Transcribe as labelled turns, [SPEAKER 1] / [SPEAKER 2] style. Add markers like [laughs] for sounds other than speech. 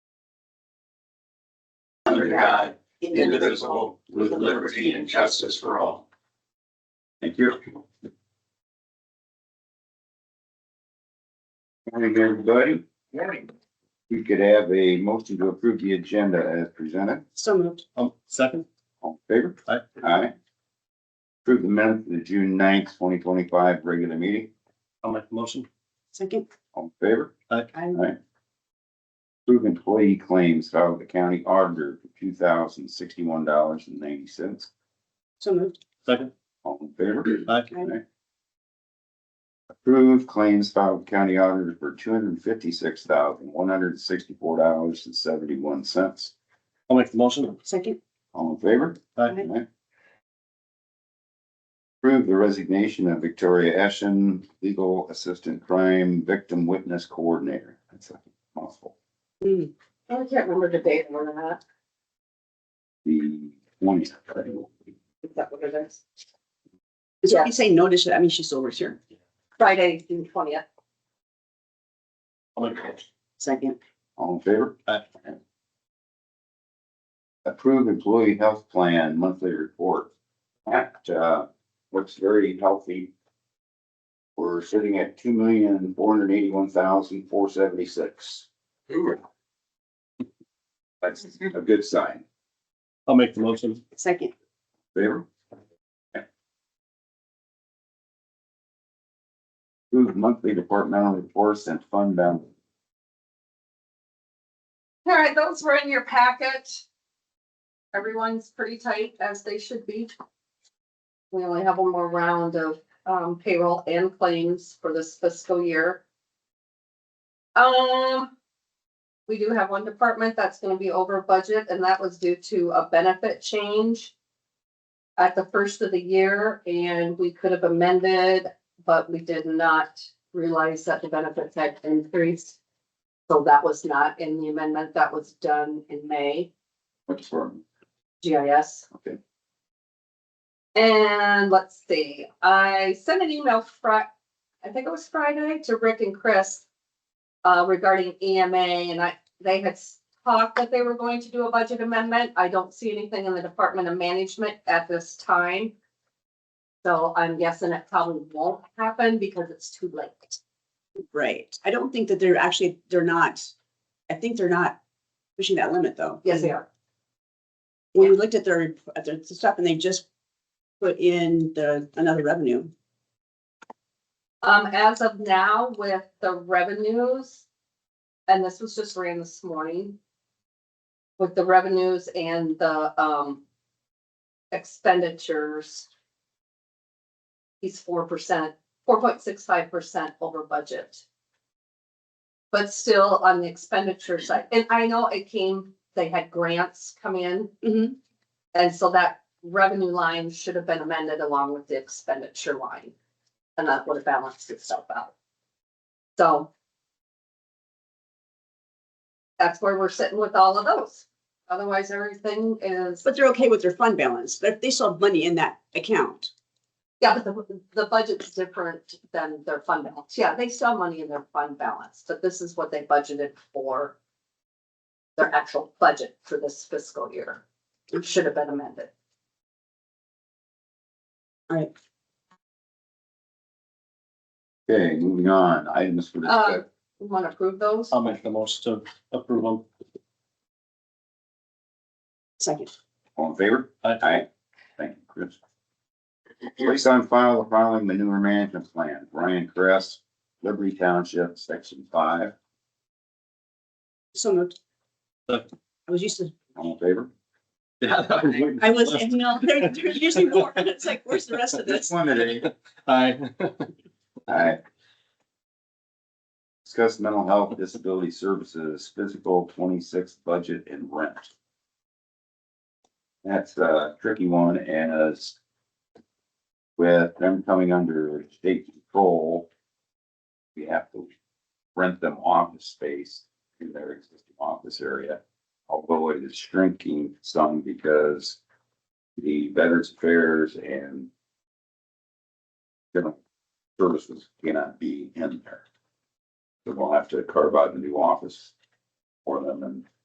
[SPEAKER 1] under God, indivisible, with liberty and justice for all.
[SPEAKER 2] Thank you. Morning, everybody.
[SPEAKER 1] Morning.
[SPEAKER 2] We could have a motion to approve the agenda as presented.
[SPEAKER 3] So moved.
[SPEAKER 4] Um, second,
[SPEAKER 2] All in favor?
[SPEAKER 4] Aye.
[SPEAKER 2] Aye. Approve the minutes of the June 9th, twenty twenty-five regular meeting.
[SPEAKER 4] I'll make the motion.
[SPEAKER 3] Second.
[SPEAKER 2] All in favor?
[SPEAKER 3] I
[SPEAKER 2] Aye. Approve employee claims filed with the county auditor for two thousand sixty-one dollars and ninety cents.
[SPEAKER 3] So moved.
[SPEAKER 4] Second,
[SPEAKER 2] All in favor?
[SPEAKER 4] aye,
[SPEAKER 3] I
[SPEAKER 2] Approve claims filed with county auditor for two hundred and fifty-six thousand, one hundred and sixty-four dollars and seventy-one cents.
[SPEAKER 4] I'll make the motion.
[SPEAKER 3] Second.
[SPEAKER 2] All in favor?
[SPEAKER 4] Aye,
[SPEAKER 2] Aye. Approve the resignation of Victoria Eschen, legal assistant crime victim witness coordinator. That's a mouthful.
[SPEAKER 3] Hmm.
[SPEAKER 1] I can't remember debating or not,
[SPEAKER 2] The twentieth.
[SPEAKER 1] is that what it is?
[SPEAKER 3] Is what you say notice, I mean, she still works here.
[SPEAKER 1] Friday, June twentieth.
[SPEAKER 4] I'll make the motion.
[SPEAKER 3] Second.
[SPEAKER 2] All in favor?
[SPEAKER 4] Aye.
[SPEAKER 2] Approve employee health plan monthly report. That, uh, looks very healthy. We're sitting at two million, four hundred eighty-one thousand, four seventy-six. That's a good sign.
[SPEAKER 4] I'll make the motion.
[SPEAKER 3] Second.
[SPEAKER 2] Favor? Approve monthly departmental reports and fund balance.
[SPEAKER 5] All right, those were in your packet. Everyone's pretty tight as they should be.
[SPEAKER 1] We only have one more round of um, payroll and claims for this fiscal year. Um, we do have one department that's gonna be over budget, and that was due to a benefit change at the first of the year, and we could have amended, but we did not realize that the benefits had increased. So that was not in the amendment that was done in May,
[SPEAKER 2] What's wrong?
[SPEAKER 1] GIS.
[SPEAKER 2] Okay.
[SPEAKER 1] And let's see, I sent an email Fri- I think it was Friday to Rick and Chris. Uh, regarding EMA and I, they had s- talked that they were going to do a budget amendment. I don't see anything in the Department of Management at this time. So I'm guessing it probably won't happen because it's too late.
[SPEAKER 3] Right. I don't think that they're actually, they're not, I think they're not pushing that limit though.
[SPEAKER 1] Yes, they are.
[SPEAKER 3] When we looked at their, rep- at their stuff and they just put in the, another revenue.
[SPEAKER 1] Um, as of now with the revenues, and this was just ran this morning. With the revenues and the, um, expenditures. He's four percent, four point six five percent over budget. But still on the expenditure side, and I know it came, they had grants come in.
[SPEAKER 3] Mm-hmm.
[SPEAKER 1] And so that revenue line should have been amended along with the expenditure line. And that would have balanced itself out. So. That's where we're sitting with all of those. Otherwise, everything is,
[SPEAKER 3] But they're okay with their fund balance. They, they still have money in that account.
[SPEAKER 1] yeah, but the, the budget's different than their fund balance. Yeah, they still have money in their fund balance, but this is what they budgeted for. Their actual budget for this fiscal year. It should have been amended.
[SPEAKER 2] Okay, moving on, items for discussion.
[SPEAKER 1] Uh, You want to approve those?
[SPEAKER 4] I'll make the motion to approve them.
[SPEAKER 3] Second.
[SPEAKER 2] All in favor?
[SPEAKER 4] Aye.
[SPEAKER 2] Thank you, Chris. Place on file the following manure management plan, Brian Cress, Liberty Township, section five,
[SPEAKER 3] So moved.
[SPEAKER 4] Second.
[SPEAKER 3] I was used to,
[SPEAKER 2] all in favor?
[SPEAKER 4] [laughs] Yeah. that was waiting for
[SPEAKER 3] I was,
[SPEAKER 4] the
[SPEAKER 3] you know, [laughs] there, there's usually more. It's like, where's the rest of
[SPEAKER 2] That's
[SPEAKER 3] this?
[SPEAKER 2] one today.
[SPEAKER 4] last. Aye,
[SPEAKER 2] Alright. Discuss mental health, disability services, physical twenty-six budget and rent. That's a tricky one and as with them coming under state control, we have to rent them office space in their existing office area. Although it is shrinking some because the Veterans Affairs and General services cannot be in there. So we'll have to carve out a new office for them and